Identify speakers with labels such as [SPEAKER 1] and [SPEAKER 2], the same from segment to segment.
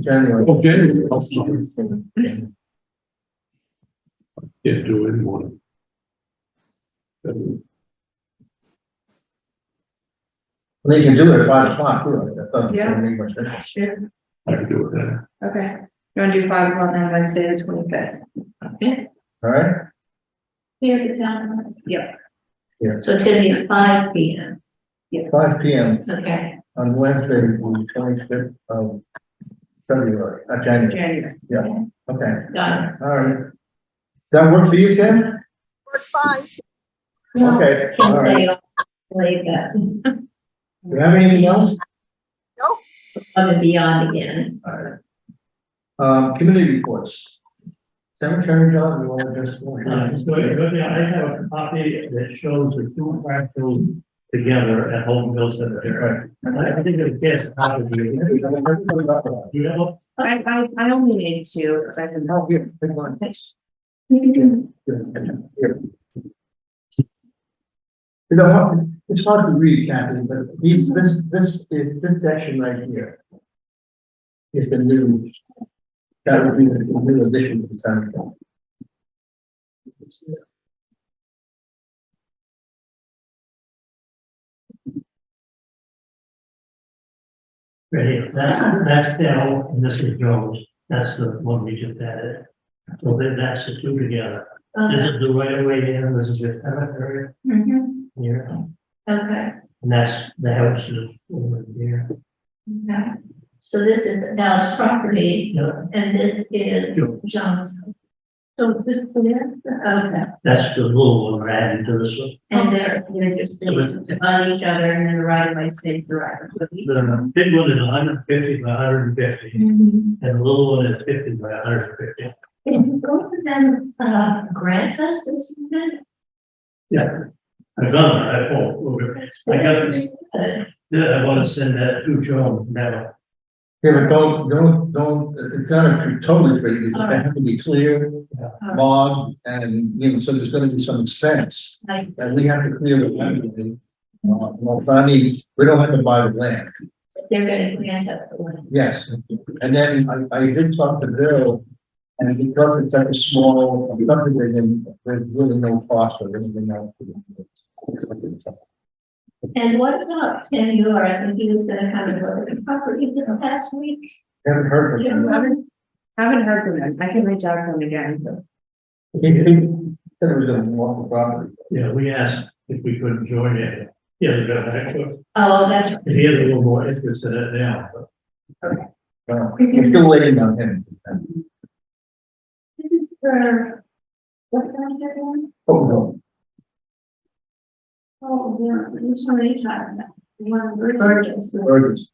[SPEAKER 1] January.
[SPEAKER 2] Okay.
[SPEAKER 1] Well,
[SPEAKER 2] Can't do anyone.
[SPEAKER 1] They can do it at five o'clock, too. That doesn't
[SPEAKER 3] Yeah.
[SPEAKER 1] make much difference.
[SPEAKER 3] Sure,
[SPEAKER 2] I can do that.
[SPEAKER 3] okay. You wanna do five o'clock on Wednesday, the twenty-fifth? Okay.
[SPEAKER 1] All right?
[SPEAKER 4] Here at the town.
[SPEAKER 3] Yep.
[SPEAKER 1] Yeah.
[SPEAKER 4] So it's gonna be at five P M,
[SPEAKER 1] Five P M
[SPEAKER 4] okay,
[SPEAKER 1] on Wednesday, the twenty-fifth of February, uh, January.
[SPEAKER 3] January.
[SPEAKER 1] Okay,
[SPEAKER 4] got it.
[SPEAKER 1] all right. That work for you, Ken?
[SPEAKER 4] No,
[SPEAKER 1] Okay,
[SPEAKER 4] it's Kim's
[SPEAKER 1] all right.
[SPEAKER 4] day off, Like that,
[SPEAKER 1] Do you have anything else?
[SPEAKER 4] above and beyond again.
[SPEAKER 1] All right. Um, committee reports. Cemetery job, you want to just? go ahead?
[SPEAKER 5] So, yeah, I have a copy that shows the two fractals together at Holton Hill Cemetery. And I think it's guest copy. Do
[SPEAKER 1] Hey, I've heard something about that.
[SPEAKER 5] you have a-
[SPEAKER 3] I, I, I only need two, because I can.
[SPEAKER 1] No, here, big one. Here. You know, what? it's hard to read, Kathy, but these, this, this is, this section right here. Is the new. That would be the new addition to the cemetery.
[SPEAKER 5] Right here, that, that's Dell, and this is Jones, that's the one we just added. So then that's the two together. This
[SPEAKER 4] Okay,
[SPEAKER 5] is the right of way here, and this is your cemetery here,
[SPEAKER 4] okay,
[SPEAKER 5] and that's the house is over here.
[SPEAKER 4] okay. So this is Dow's property
[SPEAKER 5] Yeah,
[SPEAKER 4] and this is
[SPEAKER 5] Joe,
[SPEAKER 4] John's. So this is there, okay,
[SPEAKER 5] That's the little one we're adding to this one.
[SPEAKER 4] and they're, they're just on each other and then the right of way stays the right of way.
[SPEAKER 5] The big one is hundred fifty by hundred and fifty. And the little one is fifty by hundred and fifty.
[SPEAKER 4] Did both of them, uh, grant us this?
[SPEAKER 5] Yeah. I've done that, I thought, over. I got this. Yeah, I wanna send that to Joan now.
[SPEAKER 1] Here, but don't, don't, don't, it's not a totally free, it's gonna have to be clear, log, and, you know, so there's gonna be some expense.
[SPEAKER 4] Right.
[SPEAKER 1] And we have to clear the land. Uh, Well, I mean, we don't have to buy the land,
[SPEAKER 4] They're gonna grant us the one.
[SPEAKER 1] yes, and then I, I did talk to Bill. And because it's such a small subdivision, there's really no cost or anything else.
[SPEAKER 4] And what about Tim Yor? I think he was gonna come and look at the property this past week.
[SPEAKER 1] Haven't heard from him.
[SPEAKER 3] Haven't haven't heard from them, I can reach out to them again.
[SPEAKER 1] He, he said it was a walk property.
[SPEAKER 5] Yeah, we asked if we could join it. Yeah, they got that quick.
[SPEAKER 4] Oh, that's, right.
[SPEAKER 5] He had a little more interest in it now, but
[SPEAKER 1] Uh, We're still waiting on him.
[SPEAKER 4] this is for, what's that other one?
[SPEAKER 1] Oh, no.
[SPEAKER 4] Oh, yeah, which one are you talking about? The One Burgess.
[SPEAKER 1] Burgess.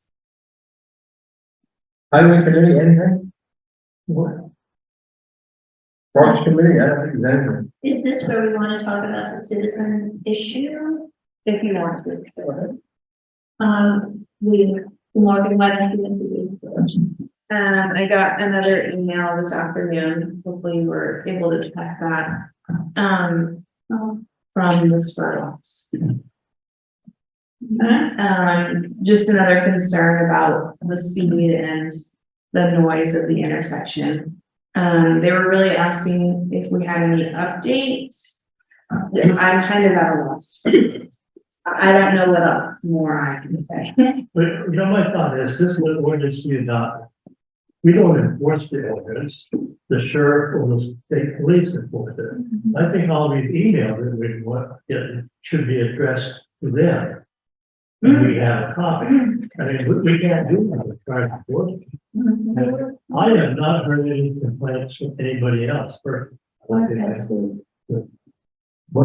[SPEAKER 1] Highway committee, anything? Parks committee, I don't think there's anything.
[SPEAKER 4] Is this where we wanna talk about the citizen issue?
[SPEAKER 3] If you want to.
[SPEAKER 4] Um, we, Morgan, why don't you do
[SPEAKER 3] Um, I got another email this afternoon, hopefully you were able to check that, um, from the Spurlocks. Um, just another concern about the speed and the noise of the intersection. Um, they were really asking if we had any updates. I'm kind of at a loss. I I don't know what else more I can say.
[SPEAKER 5] but you know, my thought is this was ordinance we adopted. We don't enforce the ordinance. The sheriff or the state police enforce it. I think all these emails that we, what, yeah, should be addressed to them. And we have a copy. I mean, we, we can't do that with private work. I have not heard any complaints from anybody else for.
[SPEAKER 1] What are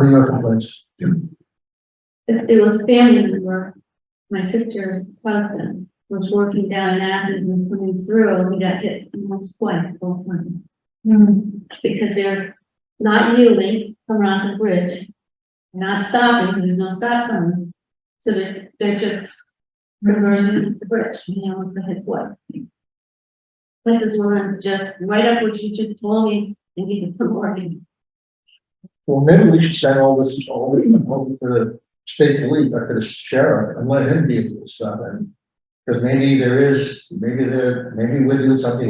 [SPEAKER 1] your complaints?
[SPEAKER 4] It, it was family member, my sister's husband, was working down in Athens and coming through, and we got hit almost twice, both times. Because they're not yielding around the bridge, not stopping, there's no stop sign. So they're, they're just reversing the bridge, you know, with the head what? This is one, just right up what you just told me, and give it some warning.
[SPEAKER 1] Well, maybe we should send all this, all the, all the state police, or to the sheriff, and let him be able to stop and Because maybe there is, maybe there, maybe we're doing something